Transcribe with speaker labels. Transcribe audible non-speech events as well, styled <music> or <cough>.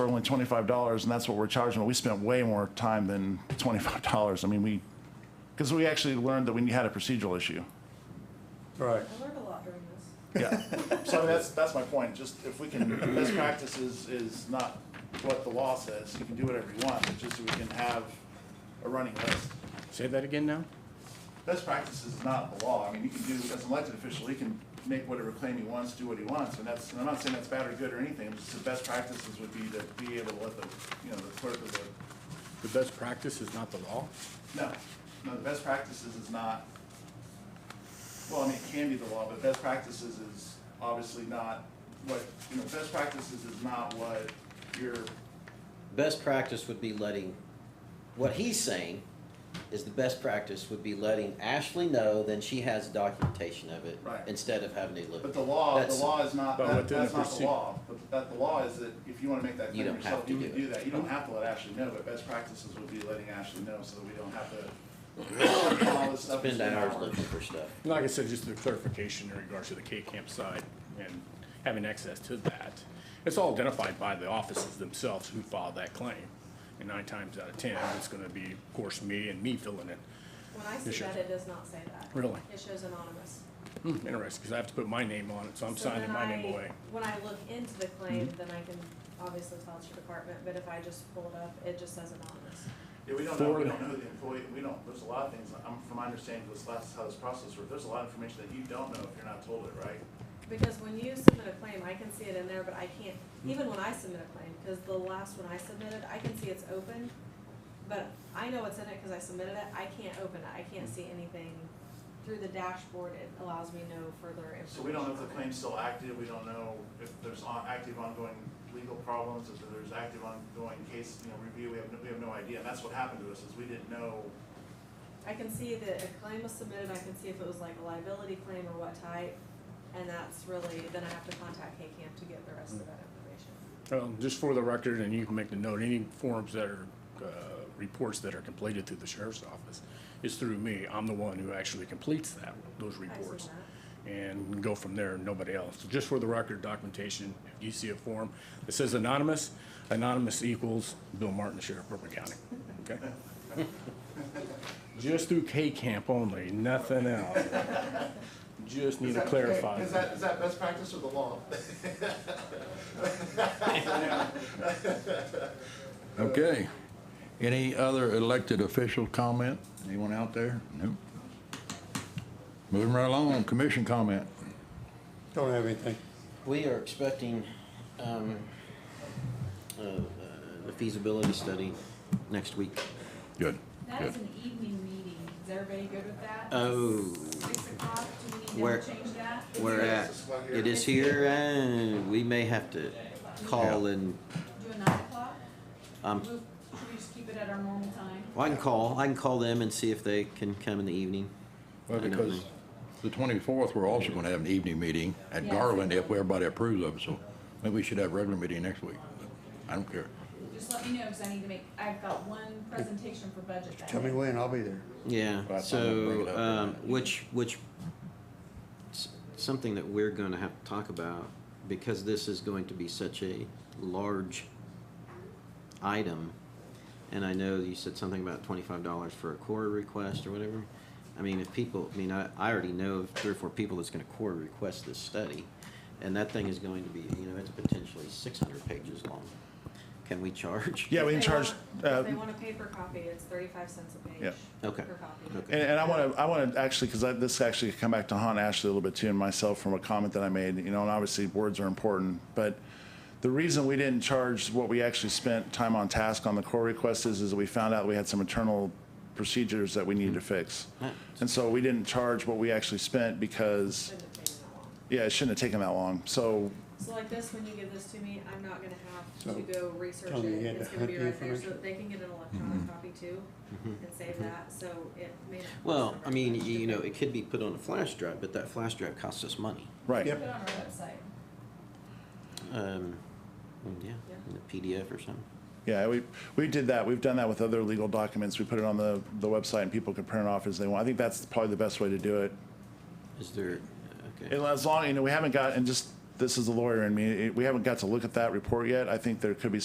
Speaker 1: for only twenty-five dollars, and that's what we're charging, but we spent way more time than twenty-five dollars. I mean, we, because we actually learned that we had a procedural issue.
Speaker 2: Right.
Speaker 3: I learned a lot during this.
Speaker 1: Yeah, so I mean, that's, that's my point, just if we can, best practice is, is not what the law says, you can do whatever you want, but just so we can have a running list.
Speaker 4: Say that again now?
Speaker 1: Best practice is not the law, I mean, you can do, as an elected official, he can make whatever claim he wants, do what he wants, and that's, and I'm not saying that's bad or good or anything, I'm just the best practices would be to be able to let the, you know, the clerk of the,
Speaker 4: The best practice is not the law?
Speaker 1: no, no, the best practices is not, well, I mean, it can be the law, but best practices is obviously not what, you know, best practices is not what your,
Speaker 5: Best practice would be letting, what he's saying is the best practice would be letting Ashley know, then she has documentation of it.
Speaker 1: Right.
Speaker 5: Instead of having to look.
Speaker 1: but the law, the
Speaker 5: That's-
Speaker 1: law is not,
Speaker 4: But
Speaker 1: that-
Speaker 4: within
Speaker 1: that's
Speaker 4: the
Speaker 1: not the
Speaker 4: proceed-
Speaker 1: law. But that, the law is that if you wanna make that
Speaker 5: You
Speaker 1: claim
Speaker 5: don't
Speaker 1: yourself,
Speaker 5: have to
Speaker 1: you can
Speaker 5: do it.
Speaker 1: do that, you don't have to let Ashley know, but best practices would be letting Ashley know so that we don't
Speaker 5: <coughs>
Speaker 1: have to all this stuff.
Speaker 5: Spend
Speaker 1: between
Speaker 5: hours looking for stuff.
Speaker 4: Like I said, just the clarification in regards to the K-Camp side and having access to that. It's all identified by the offices themselves who filed that claim. And nine times out of ten, it's gonna be, of course, me and me filling it.
Speaker 3: When I
Speaker 4: It
Speaker 3: see
Speaker 4: shows-
Speaker 3: that, it does not say that.
Speaker 4: Really?
Speaker 3: It shows anonymous.
Speaker 4: Hmm, Interesting, because I have to put my name on it, so I'm
Speaker 3: So
Speaker 4: signing
Speaker 3: then
Speaker 4: my
Speaker 3: I-
Speaker 4: name away.
Speaker 3: When I look into the claim,
Speaker 4: Mm-hmm.
Speaker 3: then I can obviously tell it's your department, but if I just pull it up, it just says anonymous.
Speaker 1: Yeah, we don't know, we
Speaker 4: For-
Speaker 1: don't know who the employee, we don't, there's a lot of things, I'm, from my understanding, this last, how this process works, there's a lot of information that you don't know if you're not told it, right?
Speaker 3: Because when you submit a claim, I can see it in there, but I can't,
Speaker 4: Mm-hmm.
Speaker 3: even when I submit a claim, because the last one I submitted, I can see it's open, but I know it's in it because I submitted it, I can't open it, I can't
Speaker 4: Mm-hmm.
Speaker 3: see anything. Through the dashboard, it allows me no further information.
Speaker 1: So we don't know if the
Speaker 3: on it.
Speaker 1: claim's still active, we don't know if there's on, active ongoing legal problems, if there's active ongoing case, you know, review, we have, no- we have no idea, and that's what happened to us, is we didn't know.
Speaker 3: I can see that a claim was submitted, I can see if it was like a liability claim or what type, and that's really, then I have to contact K-CAM to get the rest of that information.
Speaker 4: Well, Um, just for the record, and you can make the note, any forms that are, uh, reports that are completed through the sheriff's office is through me. I'm the one who actually completes that, those reports. And go from there, nobody else. So Just for the record, documentation, if you see a form that says anonymous, anonymous equals Bill Martin, the Sheriff of Brooklyn County, okay?
Speaker 1: <laughs>
Speaker 4: Just through K-Camp only,
Speaker 1: <laughs>
Speaker 4: nothing else. Just need
Speaker 1: Is
Speaker 4: to
Speaker 1: that-
Speaker 4: clarify.
Speaker 1: Is that, is that best practice or the law?
Speaker 2: Okay. Any other elected official comment? Anyone out there? Nope. Moving right along, commission comment.
Speaker 6: Don't have anything.
Speaker 5: We are expecting, um, uh, uh, the feasibility study next week.
Speaker 2: Good.
Speaker 7: That
Speaker 2: good.
Speaker 7: is an evening meeting. Is everybody good with that?
Speaker 5: Oh.
Speaker 7: Six o'clock, do we need to
Speaker 5: Where-
Speaker 7: ever change that?
Speaker 5: We're at, it is here, and we may have to call and,
Speaker 7: Do a nine o'clock?
Speaker 5: um,
Speaker 7: Move- Should we just keep it at our normal time?
Speaker 5: well, I can call, I can call them and see if they can come in the evening.
Speaker 2: Well,
Speaker 5: I don't
Speaker 2: because
Speaker 5: know.
Speaker 2: the 24th, we're also going to have an evening meeting at Garland if everybody approves of it, so maybe we should have a regular meeting next week. I don't care.
Speaker 7: Just let me know, because I need to make, I've got one presentation for budget that
Speaker 6: Tell me
Speaker 7: day.
Speaker 6: when, I'll be there.
Speaker 5: Yeah,
Speaker 2: Right, so I'm gonna bring it
Speaker 5: so,
Speaker 2: up in a
Speaker 5: um,
Speaker 2: minute.
Speaker 5: which, which, s- something that we're gonna have to talk about, because this is going to be such a large item, and I know you said something about twenty-five dollars for a quarter request or whatever. I mean, if people, I mean, I, I already know of three or four people that's gonna quarter request this study, and that thing is going to be, you know, it's potentially six hundred pages long. Can we charge?
Speaker 1: Yeah, we can
Speaker 3: If they
Speaker 1: charge,
Speaker 3: want-
Speaker 1: uh,
Speaker 3: If they want a paper copy, it's thirty-five cents a page.
Speaker 1: Yeah.
Speaker 5: Okay.
Speaker 3: Per copy.
Speaker 5: Okay.
Speaker 1: And, and I want to, I want to actually, because this actually come back to haunt Ashley a little bit too, and myself from a comment that I made. You know, and obviously words are important, but the reason we didn't charge what we actually spent time on task on the core request is, is that we found out we had some internal procedures that we needed to fix, and so we didn't charge what we actually spent because,
Speaker 3: Shouldn't have taken that long.
Speaker 1: yeah, it shouldn't have taken that long. So
Speaker 3: So like this, when you give this to me, I'm not gonna have to
Speaker 6: So,
Speaker 3: go research
Speaker 6: tell me you
Speaker 3: it,
Speaker 6: had
Speaker 3: it's
Speaker 6: to
Speaker 3: gonna be
Speaker 6: hunt the
Speaker 3: right there, so
Speaker 6: information. Mm-hmm.
Speaker 3: they can get an electronic copy too, and save that, so it may not. cost
Speaker 5: Well,
Speaker 3: them
Speaker 5: I
Speaker 3: very
Speaker 5: mean,
Speaker 3: much to
Speaker 5: you you know,
Speaker 3: pay.
Speaker 5: it could be put on a flash drive, but that flash drive costs us money.
Speaker 1: right,
Speaker 7: Put it on our website.
Speaker 5: Um, yeah,
Speaker 3: Yeah.
Speaker 5: in a PDF or something.
Speaker 1: yeah, we we did that. We've done that with other legal documents. We put it on the the website, and people can print it off as they want. I think that's probably the best way to do it.
Speaker 5: Is there, okay.
Speaker 1: And as long, you know, we haven't got, and just, this is the lawyer in me, it- we haven't got to look at that report yet. I think there could be